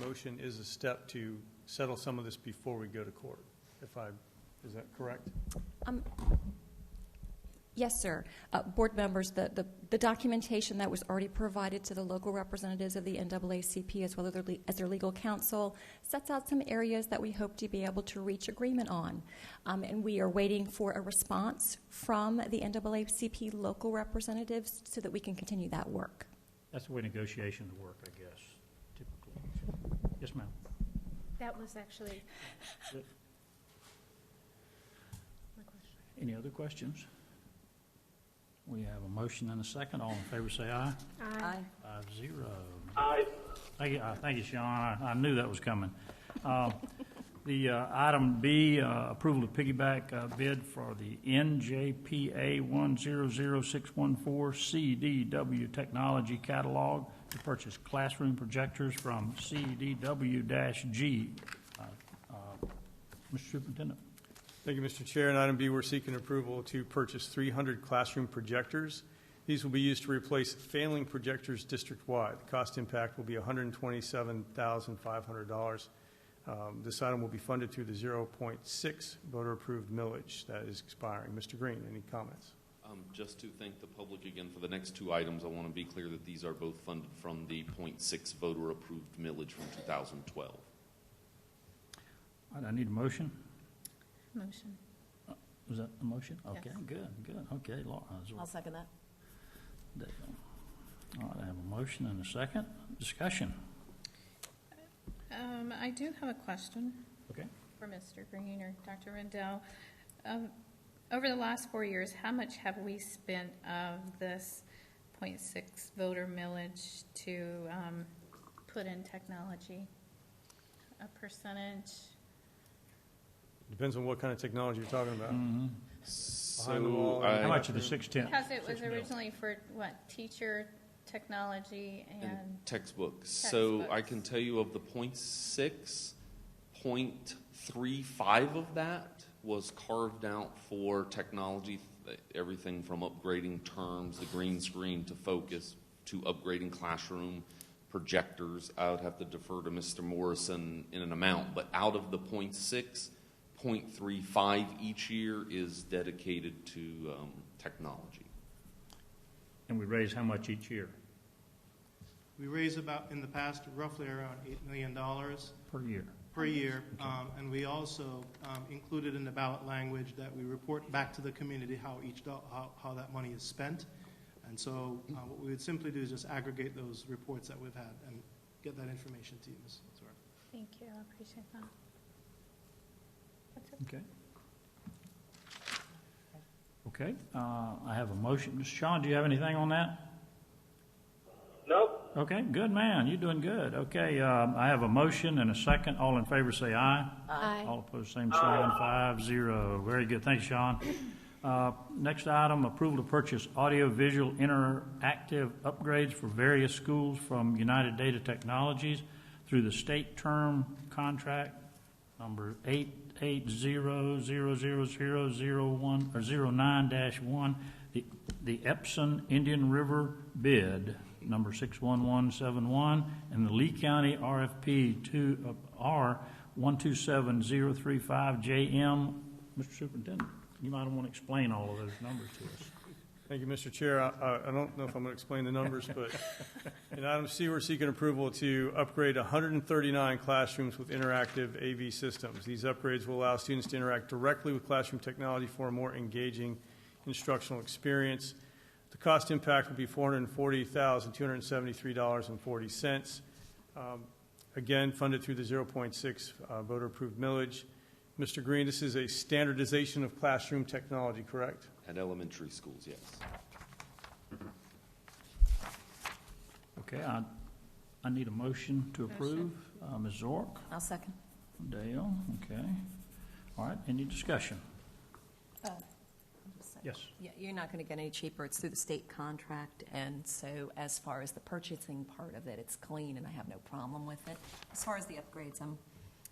motion is a step to settle some of this before we go to court, if I, is that correct? Yes, sir. Uh, Board members, the- the the documentation that was already provided to the local representatives of the NAACP as well as their le- as their legal counsel sets out some areas that we hope to be able to reach agreement on. Um, And we are waiting for a response from the NAACP local representatives so that we can continue that work. That's the way negotiations work, I guess, typically. Yes, ma'am. That was actually Good. my question. Any other questions? We have a motion and a second. All in favor, say aye. uh, Five zero. Aye. Thank you, uh, thank you, Sean. I I knew that was coming. Uh, The uh, item B, uh, approval of piggyback uh, bid for the NJPA 100614 CDW Technology Catalog to purchase classroom projectors from CDW-G. Uh, uh, Mr. Superintendent? Thank you, Mr. Chair. And item B, we're seeking approval to purchase 300 classroom projectors. These will be used to replace failing projectors district-wide. The cost impact will be $127,500. Um, This item will be funded through the 0.6 voter-approved millage that is expiring. Mr. Green, any comments? Um, Just to thank the public again for the next two items, I want to be clear that these are both funded from the .6 voter-approved millage from 2012. All right, I need a motion. Motion. Was that a motion? Yes. Okay, good, good. Okay, Laura. that's what- I'll second that. There you go. All right, I have a motion and a second. Discussion. Um, I do have a question Okay. for Mr. Green or Dr. Rendell. Um, over the last four years, how much have we spent of this 0.6 voter millage to, um, put in technology? A percentage? Depends on what kind of technology you're talking about. the So wall and- How I- much of the six tenths? Because it was Six mil. originally for, what, teacher, technology, and, and textbooks. So I Textbooks. can tell you of the .6, .35 of that was carved out for technology, th- everything from upgrading terms, the green screen to focus, to upgrading classroom projectors. I would have to defer to Mr. Morrison in an amount, but out of the .6, .35 each year is dedicated to um, technology. And we raise how much each year? We raise about, in the past, roughly around $8 million Per year? per year. Um, And we also um, included in the ballot language that we report back to the community how each, do- how how that money is spent. And so uh, what we would simply do is just aggregate those reports that we've had and get that information to you, Ms. Sora. thank you, I appreciate that. That's it. Okay. Okay, uh, I have a motion. Mr. Sean, do you have anything on that? Nope. Okay, good man. You're doing good. Okay, um, I have a motion and a second. All in favor, say aye. All opposed, same sign, five, zero. Very good, thanks, Sean. Uh, Next item, approval to purchase audiovisual interactive upgrades for various schools from United Data Technologies through the state term contract number eight eight zero zero zero zero zero one, or zero nine dash one, the the Epson Indian River bid, number six one one seven one, and the Lee County RFP two, uh, R one two seven zero three five JM. Mr. Superintendent, you might want to explain all of those numbers to us. Thank you, Mr. Chair. I- I I don't know if I'm going to explain the numbers, but in item C, we're seeking approval to upgrade 139 classrooms with interactive AV systems. These upgrades will allow students to interact directly with classroom technology for a more engaging instructional experience. The cost impact will be $440,273.40. Um, Again, funded through the 0.6 uh, voter-approved millage. Mr. Green, this is a standardization of classroom technology, correct? At elementary schools, yes. Okay, I, I need a motion to approve. Uh, Ms. Zork, I'll second. Dale, okay. All right, any discussion? Yes. Yeah, You're not going to get any cheaper. It's through the state contract, and so as far as the purchasing part of it, it's clean, and I have no problem with it. As far as the upgrades, I'm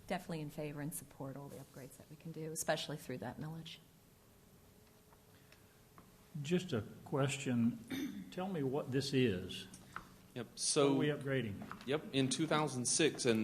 definitely in favor and support all the upgrades that we can do, especially through that millage. Just a question. Tell me what this is. What Yep, are so, we upgrading? yep, in 2006, and